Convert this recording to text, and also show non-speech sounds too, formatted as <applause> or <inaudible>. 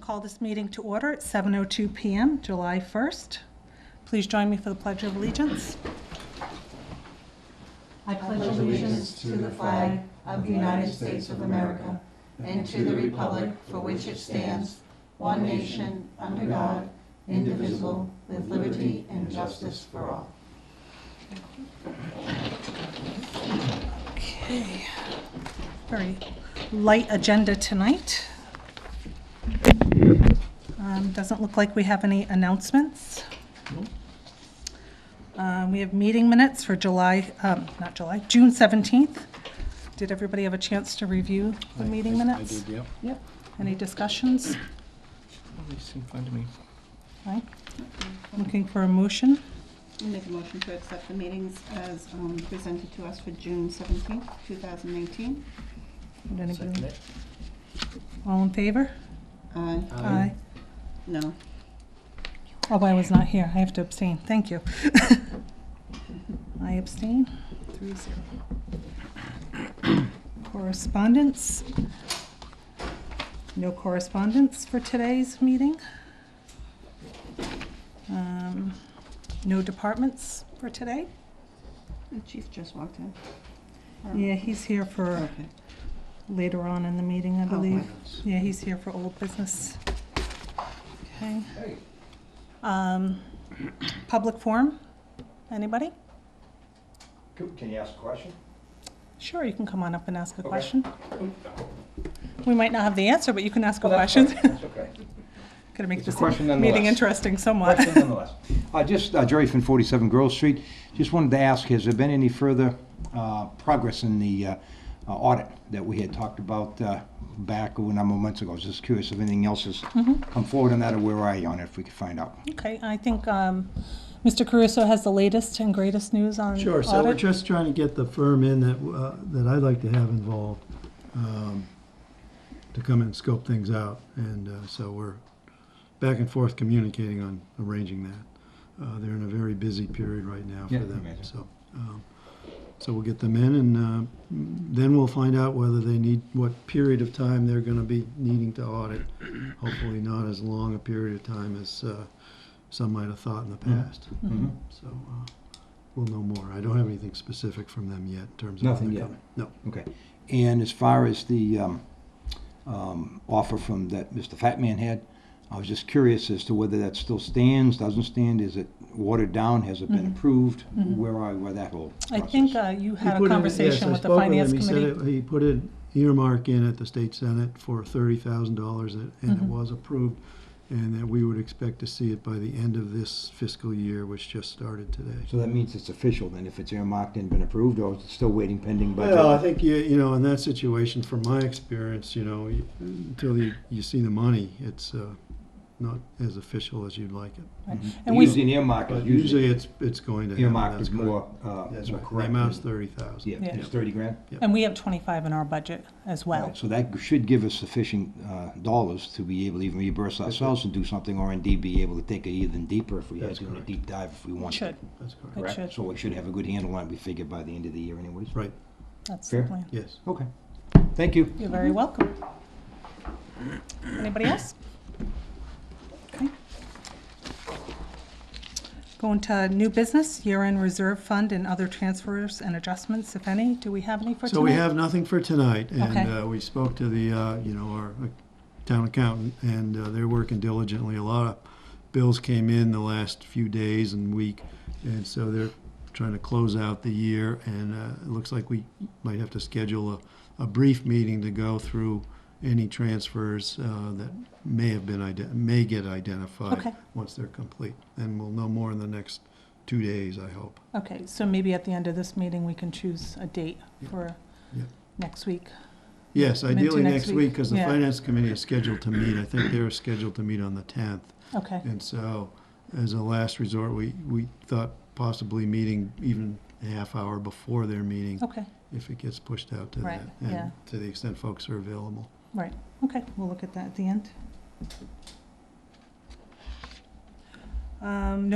call this meeting to order at 7:02 PM, July 1st. Please join me for the Pledge of Allegiance. I pledge allegiance to the flag of the United States of America and to the republic for which it stands, one nation, under God, indivisible, with liberty and justice for all. Okay. Very light agenda tonight. Um, Doesn't look like we have any announcements. Um, We have meeting minutes for July, um, not July, June 17th. Did everybody have a chance to review the meeting minutes? yep. Yep. Any discussions? Right. Looking for a motion? I'll make a motion to accept the meetings as um, presented to us for June seventeenth, two thousand nineteen. Would anybody- All in favor? Uh, Aye. no, Oh, I was not here. I have to abstain. Thank you. <laughs> I abstain. Three zero. Correspondence? No correspondence for today's meeting? Um, No departments for today? the chief just walked in. Or- Yeah, he's here for Okay. Oh, later on in the meeting, I Oh, Okay. believe. Yeah, he's here for old business. Okay. Um, Public forum? Anybody? Coop, Can you ask a question? Sure, you can come on up and ask a Okay. question. We might not have the answer, but you can ask a Well, that's question. <laughs> fine. That's okay. Gonna make It's a this question meeting nonetheless. interesting somewhat. Question nonetheless. Uh, Just, uh, Jerry from 47 Grove Street, just wanted to ask, has there been any further uh, progress in the uh, uh, audit that we had talked about uh, back a number of months ago? Just curious if anything else has Mm-hmm. come forward on that, or where are you on it, if we could find out? Okay, I think um, Mr. Caruso has the latest and greatest news on Sure, so we're audit. just trying to get the firm in that, uh, that I'd like to have involved, um, to come and scope things out, and, uh, so we're back and forth communicating on arranging that. Uh, they're in a very busy period right now for Yeah, them, imagine. so, um, so we'll get them in, and, uh, then we'll find out whether they need, what period of time they're gonna be needing to audit. Hopefully not as long a period of time as, uh, some might have thought in the past. Mm-hmm. Mm-hmm. So uh, we'll know more. I don't have anything specific from them yet in terms of when Nothing they're yet. coming. No. Okay. And as far as the um, um, offer from that Mr. Fat Man had, I was just curious as to whether that still stands, doesn't stand, is it watered down, has it been approved? Where are, where that whole Mm-hmm. I process? think uh, you He had put a in- conversation yes, I with the spoke finance him. He said committee. it- He put an earmark in at the state senate for thirty thousand dollars and and it was approved. And that we would expect to see it by the end of this fiscal year, which just started today. So that means it's official then, if it's earmarked and been approved, or is it still waiting pending budget? Well, I think you, you know, in that situation, from my experience, you know, you- until you, you see the money, it's uh, not as official as you'd like it. And we, Mm-hmm. Usually an earmark But is usually usually, it's, it's going to happen. earmarked That's is correct. more, uh, That's more right. The correct. amount's thirty thousand. Yeah, Yeah. it's thirty grand? and we have 25 in our budget as well. Right, So that should give us sufficient uh, dollars to be able to even reimburse ourselves and do something, or indeed be able to take it even deeper if we had That's to, do a correct. deep dive if we It wanted. should, That's It correct. Correct? should. So we should have a good handle on it, we figure by the end of the year anyways. Right, that's the Fair. plan. yes. Okay, thank you. You're very welcome. Anybody else? Okay. Going to new business, year-end reserve fund and other transfers and adjustments, if any. Do we have any for tonight? So we have nothing for tonight, and Okay. uh, we spoke to the, uh, you know, our uh, town accountant, and uh, they're working diligently. A lot of bills came in the last few days and week, and so they're trying to close out the year, and uh, it looks like we might have to schedule a, a brief meeting to go through any transfers uh, that may have been, ide- may get Okay. identified once they're complete. And we'll know more in the next two days, I hope. Okay, so maybe at the end of this meeting, we can choose a date for Yeah. next week. Yes, meant to ideally next next week, week? because the Yeah. finance committee is scheduled to meet, I think they're scheduled to meet on the tenth. Okay, And so, as a last resort, we, we thought possibly meeting even a half hour before their meeting, okay, if it gets pushed out to Oh. Right, that. yeah. And to the extent folks are available. right, okay. We'll look at that at the end. Um,